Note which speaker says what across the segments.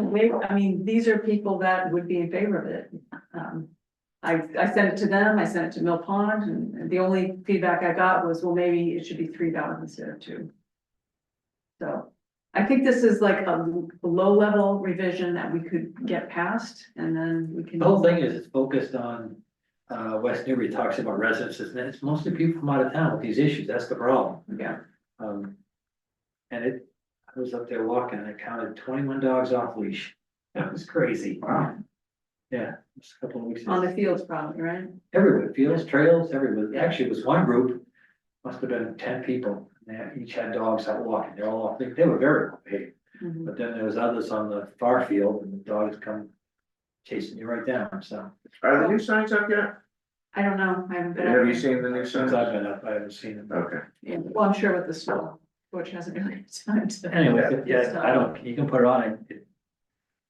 Speaker 1: Maybe, I mean, these are people that would be in favor of it. Um, I, I sent it to them, I sent it to Mill Pond, and the only feedback I got was, well, maybe it should be three dollars instead of two. So I think this is like a low-level revision that we could get past, and then we can.
Speaker 2: The whole thing is it's focused on, uh, West Newbury talks about residences, and it's mostly people from out of town with these issues, that's the problem.
Speaker 1: Yeah,
Speaker 2: Um. And it, I was up there walking, and I counted twenty-one dogs off leash, that was crazy.
Speaker 3: Wow.
Speaker 2: Yeah, just a couple of weeks.
Speaker 1: on the fields probably, right?
Speaker 2: Everywhere, fields, trails, everywhere, actually, it was one group, must have been ten people, and they each had dogs out walking, they're all, off leash. they were very well behaved.
Speaker 1: Mhm.
Speaker 2: But then there was others on the far field, and the dogs come chasing you right down, so.
Speaker 3: Are the new signs up yet?
Speaker 1: I don't know, I haven't been. out
Speaker 3: Have you
Speaker 1: there.
Speaker 3: seen the new
Speaker 2: Since
Speaker 3: signs?
Speaker 2: I've been up, I haven't seen it.
Speaker 3: Okay,
Speaker 1: Yeah, well, I'm sure with the snow, which hasn't really had time to.
Speaker 2: Anyway, yeah, I don't, you can put it on it. it-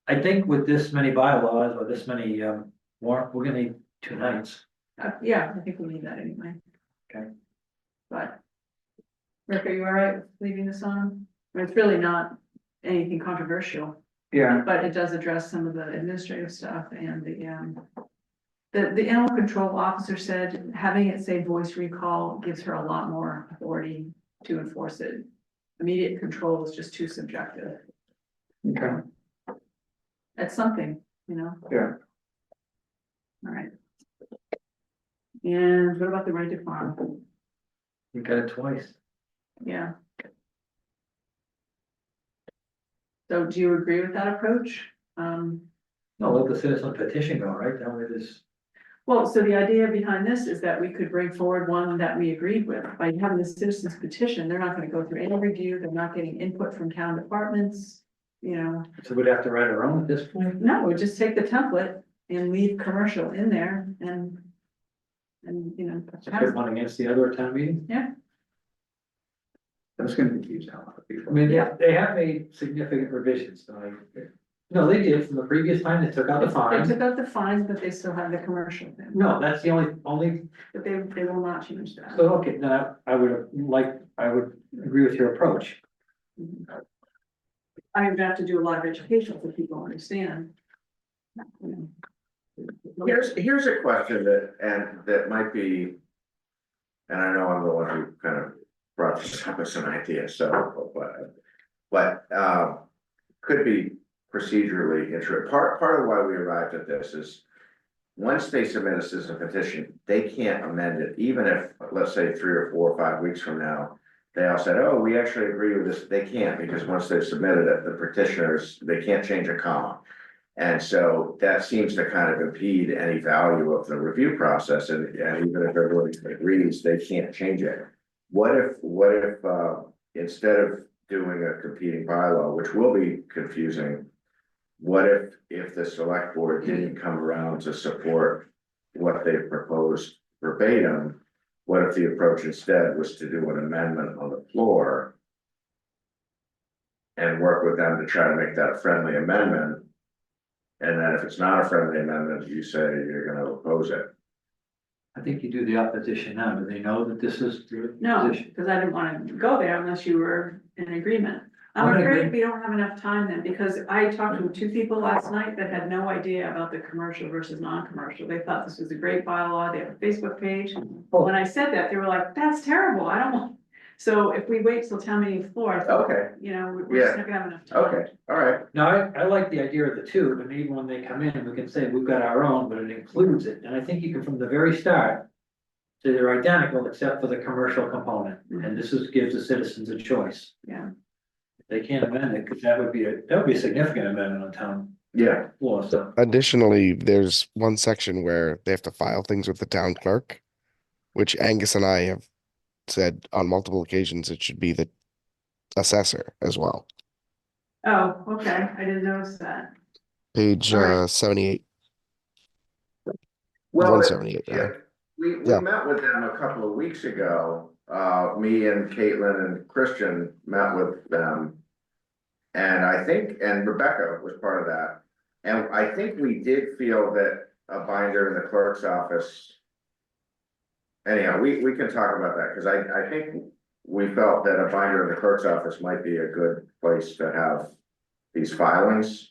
Speaker 2: I think with this many bylaws or this many um warrant, we're gonna need two nights.
Speaker 1: Uh, yeah, I think we need that anyway.
Speaker 2: Okay.
Speaker 1: But. Rick, are you all right with leaving this on? I mean, It's really not anything controversial,
Speaker 3: yeah,
Speaker 1: but it does address some of the administrative stuff and the, um. The, the animal control officer said having it say voice recall gives her a lot more authority to enforce it. Immediate control is just too subjective.
Speaker 3: okay,
Speaker 1: That's something, you know?
Speaker 3: Yeah.
Speaker 1: All right. And what about the right to farm?
Speaker 2: You got it twice.
Speaker 1: Yeah. So do you agree with that approach? Um,
Speaker 2: No, let the citizen petition go, right? That way this,
Speaker 1: well, so the idea behind this is that we could bring forward one that we agreed with. By having the citizens petition, they're not gonna go through any review, they're not getting input from town departments. You know,
Speaker 2: so we'd have to write our own at this point.
Speaker 1: no, we just take the template and leave commercial in there and. And, you know.
Speaker 2: So Put one against the other at town meeting.
Speaker 3: that's gonna confuse a lot of people.
Speaker 2: I mean, yeah, they have made significant revisions, so I. No, they did from the previous time, they took out the
Speaker 1: They
Speaker 2: fine.
Speaker 1: took out the fines, but they still have the commercial thing,
Speaker 2: No, that's the only, only
Speaker 1: but they, they will not change that.
Speaker 2: So, okay, now, I would like, I would agree with your approach.
Speaker 1: I would have to do a lot of education for people to understand. You know.
Speaker 3: Here's, here's a question that, and that might be. And I know I'm the one who kind of brought this up as an idea, so, but. But, um, could be procedurally inter, part, part of why we arrived at this is. Once they submit a citizen petition, they can't amend it, even if, let's say, three or four or five weeks from now. They all said, oh, we actually agree with this, they can't, because once they've submitted it, the petitioners, they can't change a comma. And so that seems to kind of impede any value of the review process and, and even if everyone agrees, they can't change it. What if, what if, uh, instead of doing a competing bylaw, which will be confusing. What if, if the select board didn't come around to support what they proposed verbatim? What if the approach instead was to do an amendment on the floor? And work with them to try to make that a friendly amendment? And then if it's not a friendly amendment, you say you're gonna oppose it.
Speaker 2: I think you do the opposition now, do they know that this is your
Speaker 1: No,
Speaker 2: position?
Speaker 1: because I didn't want to go there unless you were in agreement. I'm
Speaker 2: I'm in
Speaker 1: afraid we don't have enough time then, because I talked to two people last night that had no idea about the commercial versus non-commercial. They thought this was a great bylaw, they have a Facebook page.
Speaker 2: Oh.
Speaker 1: But when I said that, they were like, that's terrible, I don't want. So if we wait till town meeting floor,
Speaker 2: Oh.
Speaker 3: Okay,
Speaker 1: you know, we're- we're just not gonna have enough time.
Speaker 3: okay, all right,
Speaker 2: No, I, I like the idea of the two, but maybe when they come in, we can say we've got our own, but it includes it, and I think you can from the very start. Say they're identical except for the commercial component, and this is, gives the citizens a choice.
Speaker 1: Mm-hmm. Yeah.
Speaker 2: If They can't amend it, because that would be, a that would be a significant amendment on town
Speaker 3: yeah,
Speaker 2: law, so.
Speaker 4: Additionally, there's one section where they have to file things with the town clerk, which Angus and I have said on multiple occasions it should be the assessor as well.
Speaker 1: Oh, okay, I didn't notice that.
Speaker 4: Page
Speaker 1: All right.
Speaker 4: uh, 78,
Speaker 3: well,
Speaker 4: 178. yeah.
Speaker 3: Yeah, we, we
Speaker 4: Yeah.
Speaker 3: met with them a couple of weeks ago, uh, me and Caitlin and Christian met with them. And I think, and Rebecca was part of that, and I think we did feel that a binder in the clerk's office. Anyhow, we, we can talk about that, cause I, I think we felt that a binder in the clerk's office might be a good place to have these filings.